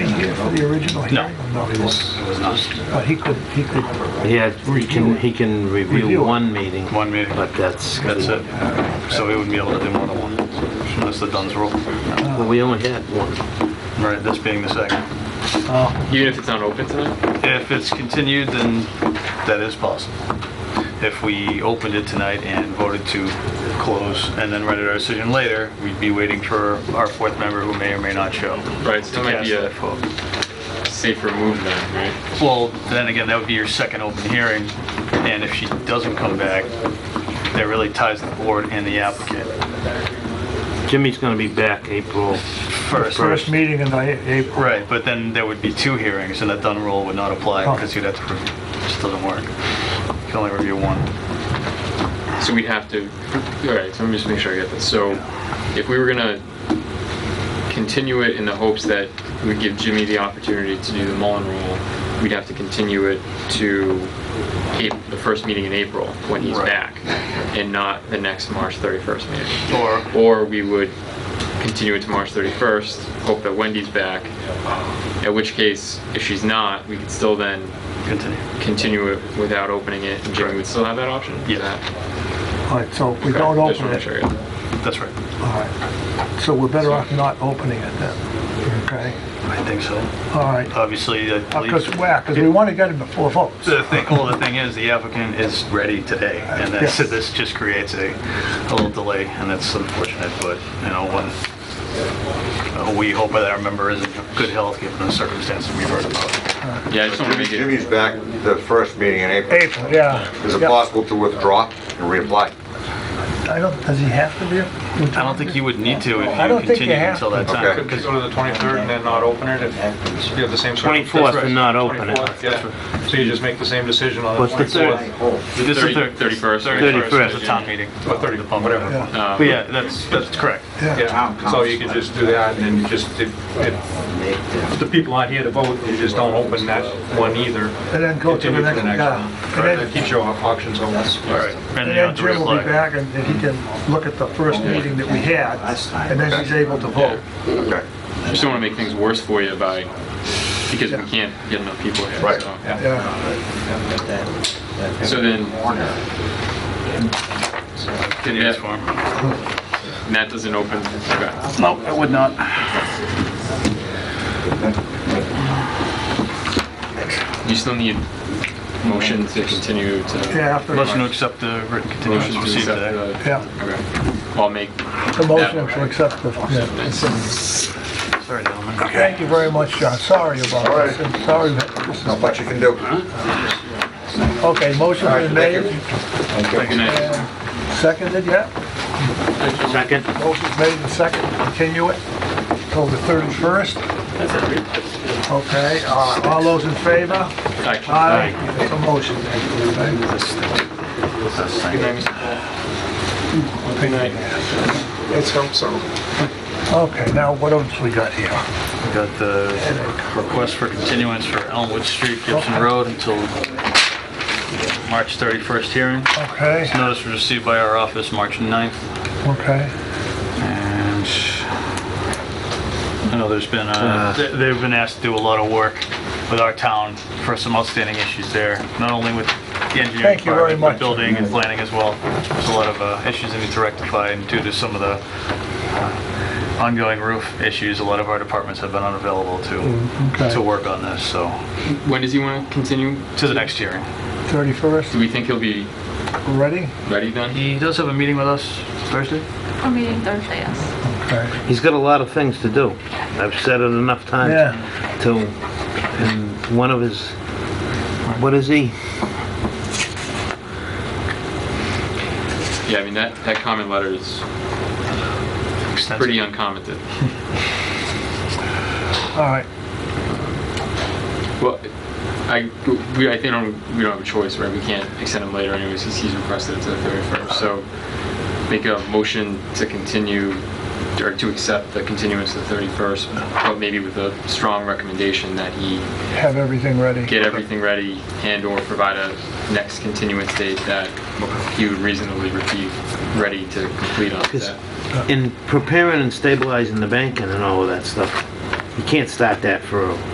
for the original No. hearing? No. he wasn't. But he could, he could, He had, he can, he can Review review it. one meeting, One meeting. but that's, That's it. So we wouldn't be able to do more than one, unless the Dunn's rule. well, we only had one. Right, this being the second. uh, Even if it's not open tonight? If it's continued, then that is possible. If we opened it tonight and voted to close and then rendered our decision later, we'd be waiting for our fourth member who may or may not show. Right, so that might be Cast a that vote. safer move then, right? Well, then again, that would be your second open hearing, and if she doesn't come back, that really ties the board and the applicant Jimmy's gonna be back April, first. first meeting in the April, Right, but then there would be two hearings, and that Dunn rule would not apply, Oh. because you'd have to, re- it just doesn't work. You can only review one. So we'd have to, all right, so let me just make sure I get this. So if we were gonna continue it in the hopes that we'd give Jimmy the opportunity to do the Mullen Rule, we'd have to continue it to Ap- the first meeting in April, when he's Right. back, and not the next March 31st meeting. Or, Or we would continue it to March 31st, hope that Wendy's back, at which case, if she's not, we could still then continue. continue it without opening it, and Jimmy Correct. would still have that option? Is Yes. that- all right, so if we don't Okay, just open it, wanna make sure I all got that. That's right. right. So we're better off not opening it then, okay? I think so. All right, Uh, Obviously, I because, believe, well, because we want to get it before votes. the thing, well, the thing is, the applicant is ready today, and that's, Yes. this just creates a, a little delay, and that's unfortunate, but, you know, when, uh, we hope that our member is in good health, given the circumstances we've heard about. Yeah, I just want to make it, Jimmy's back the first meeting in April. April, yeah. Is it Yeah. possible to withdraw and reapply? I don't, does he have to be? I don't think you would need to I if don't you think you continue have until that to. time. Okay. Could go to the 23rd and then not open it if you have the same sort of... 24th and not open it. 24th, yeah. So you just make the same decision on the What's the 24th This is Thirty- thir- 31st. 31st, is a 31st. town meeting. or 30th, Uh, whatever. Yeah, But yeah, that's, that's correct. Yeah, so you could just do that and then you just, if, if the people aren't here to vote, you just don't open that one either. And then go to the Continue next, yeah. And Right, That then- keeps your op- options open. All right. And And you then have to Jim will be reapply. back and and he can look at the first meeting that we had, and then he's able to vote. Okay. just don't want to make things worse for you by, because we can't get enough people here. Right. so. Yeah, So then, Can you just form? and that doesn't open, okay. Nope, I would not. You still need motion to continue to... yeah, after, Motion to accept the written Motion continuance to received today. accept the... yeah, Okay. I'll make the motion to accept the, yeah. Sorry, gentlemen. Thank you very much, John, sorry about All this, right. and sorry, that this Not is- much you can do. okay, motion All right, been thank made, you. Good night. seconded, yeah? second. Motion's made and seconded, continue it till the 31st. Okay, uh, all those in favor? Aye. Aye. It's a motion. Let's hope so. Okay, now what else we got here? We Got the request for continuance for Elmwood Street, Gibson Road until March 31st hearing. Okay, This notice was received by our office March 9th, okay. and I know there's been, uh, th- they've been asked to do a lot of work with our town for some outstanding issues there, not only with the engineering Thank you very department, but much. building and planning as well. There's a lot of uh, issues that need to rectify, and due to some of the uh, ongoing roof issues, a lot of our departments have been unavailable to, Mm, okay. to work on this, so, When does he want to continue? to the next hearing. 31st, Do we think he'll be ready? ready then? He does have a meeting with us Thursday? We're meeting Thursday, yes. Okay. He's got a lot of things to do. I've said it enough times. Yeah. To, and one of his, what is he? Yeah, I mean, that, that comment letter is Extensive. pretty uncommented. All right, Well, I, we, I think, don't- we don't have a choice, right? We can't extend him later anyways, since he's requested it to the 31st. So make a motion to continue, or to accept the continuance to the 31st, but maybe with a strong recommendation that he have everything ready. get everything ready and/or provide a next continuance date that he would reasonably be ready to complete on Because that. in preparing and stabilizing the banking and all of that stuff, you can't start that for